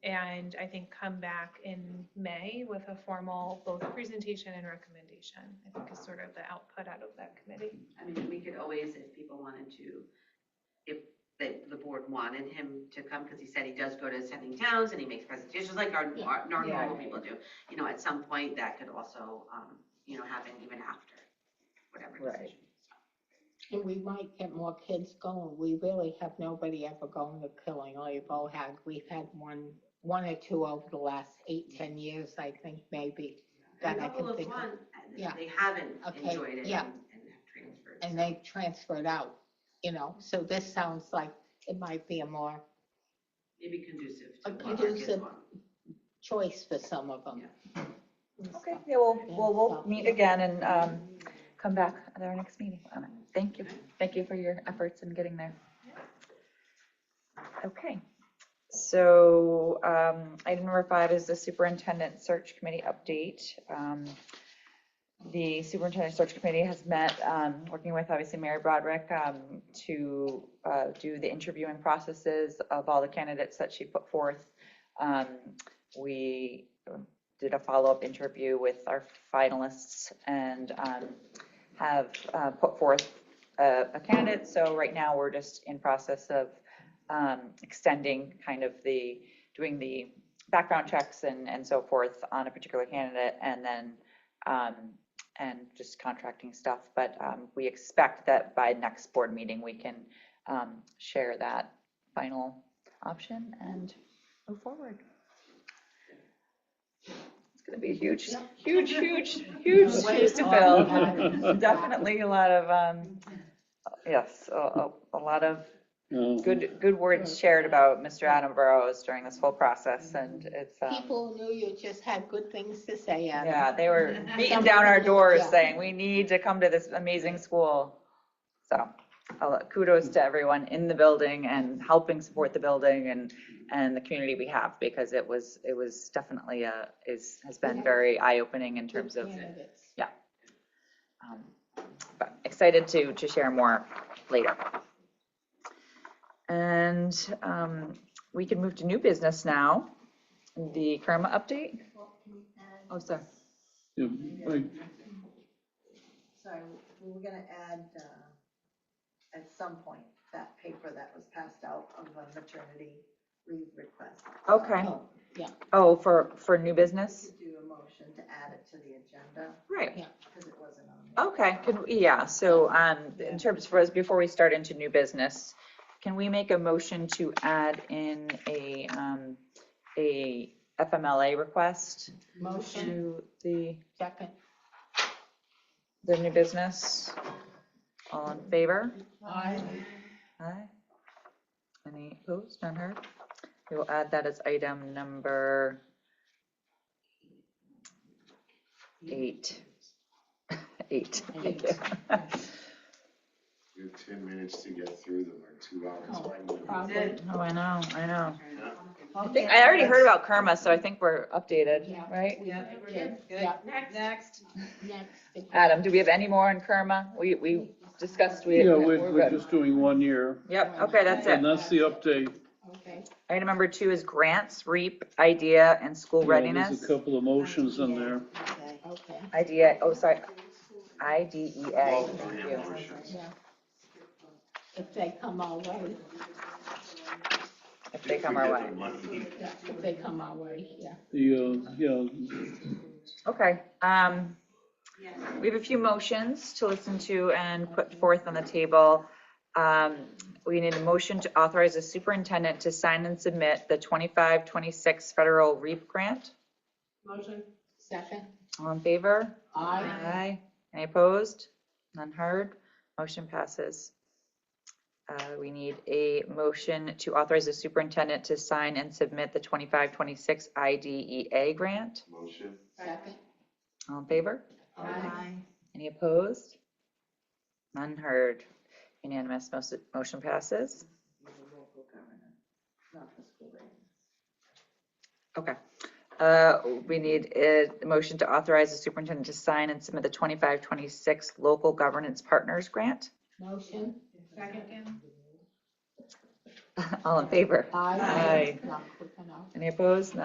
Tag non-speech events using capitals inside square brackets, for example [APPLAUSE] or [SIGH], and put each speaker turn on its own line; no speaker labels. and I think come back in May with a formal both presentation and recommendation. I think is sort of the output out of that committee.
I mean, we could always, if people wanted to, if the, the board wanted him to come, because he said he does go to ascending towns and he makes presentations like our,
Yeah.
our our
Yeah.
normal people do. You know, at some point, that could also, um, you know, happen even after whatever
Right.
decision.
And we might get more kids going. We really have nobody ever going to Killing or Bohag. We've had one, one or two over the last eight, ten years, I think, maybe.
And
That I
A
can
couple of
think of.
one,
Yeah.
they haven't
Okay,
enjoyed it and, and
yeah.
have transferred.
And
so.
they transferred out, you know, so this sounds like it might be a more
Maybe conducive
A
to what our kids
Oh, conducive-
want.
choice for some of them.
Okay, yeah, we'll, we'll, we'll
Yeah.
meet again and, um, come back at our next meeting on it. Thank you. Thank you for your efforts in getting there. Okay, so, um, item number five is the superintendent search committee update. Um, The superintendent search committee has met, um, working with obviously Mary Broderick, um, to, uh, do the interviewing processes of all the candidates that she put forth. Um, we did a follow-up interview with our finalists and, um, have uh, put forth a a candidate. So right now, we're just in process of um, extending kind of the, doing the background checks and, and so forth on a particular candidate and then, um, and just contracting stuff. But um, we expect that by next board meeting, we can um, share that final option and move forward. It's going to be a huge, huge, huge, huge shoes to fill.
[LAUGHS]
um, [LAUGHS] Definitely a lot of, um, yes, a, a- a lot of
Um,
good, good words shared about Mr. Adam Burrows during this whole process and it's, um,
People knew you just had good things to say, Adam.
yeah, they were beating down our doors saying, we need to come to this amazing school. So I'll- kudos to everyone in the building and helping support the building and, and the community we have because it was, it was definitely a, is, has been very eye-opening in terms of
Candidates.
um, But excited to, to share more later. And um, we can move to new business now, the Karma update. Oh, sorry.
Yeah, like,
Sorry, we were gonna add, uh, at some point, that paper that was passed out on the maternity leave request.
Okay.
Oh,
Oh, for, for new
We
business?
could Do a motion to add it to the agenda,
Right.
because it wasn't on there.
Okay, could, we- yeah, so um, in terms for us, before we start into new business, can we make a motion to add in a, um, a FMLA request
Motion,
to the,
second.
the new business? All in favor?
Aye.
Aye. Any opposed, none heard? We will add that as item number eight. [LAUGHS] Eight, thank you.
You have ten minutes to get through them, or two hours.
Oh,
Why would we-
Probably.
Oh, I know, I know.
I
I think, I already heard about karma, so I think we're updated,
Yeah.
right?
Yeah, we're good, good.
Yeah.
Next.
Next.
Adam, do we have any more on karma? We, we discussed, we,
yeah,
we're
we're, we're
good.
just doing one year,
Yep, okay, that's it.
and that's the update.
Okay.
Item number two is grants, REAP, IDEA, and school
Yeah, There's a
readiness.
couple of motions in there.
Okay.
Okay,
IDEA, oh, sorry, IDEA,
Well,
thank
we
you.
have motions.
yeah. If they come our way,
if they
If
come
we
our
get
way.
the money.
yeah, if they come our way, yeah.
The, uh, yeah,
Okay, um,
Yes.
we have a few motions to listen to and put forth on the table. Um, we need a motion to authorize the superintendent to sign and submit the 25-26 federal REAP grant.
Motion.
Second,
All in favor?
aye.
Aye. Any opposed? None heard? Motion passes. Uh, we need a motion to authorize the superintendent to sign and submit the 25-26 IDEA E grant.
Motion.
Second,
All in favor?
aye.
Any opposed? None heard. Unanimous, most- motion passes.
Local government, not the school.
Uh, We need a motion to authorize the superintendent to sign and submit the 2526 Local Governance Partners Grant. [LAUGHS]
Motion,
Second.
All in favor?
aye.
Aye.
Not quick enough.
Any opposed? None.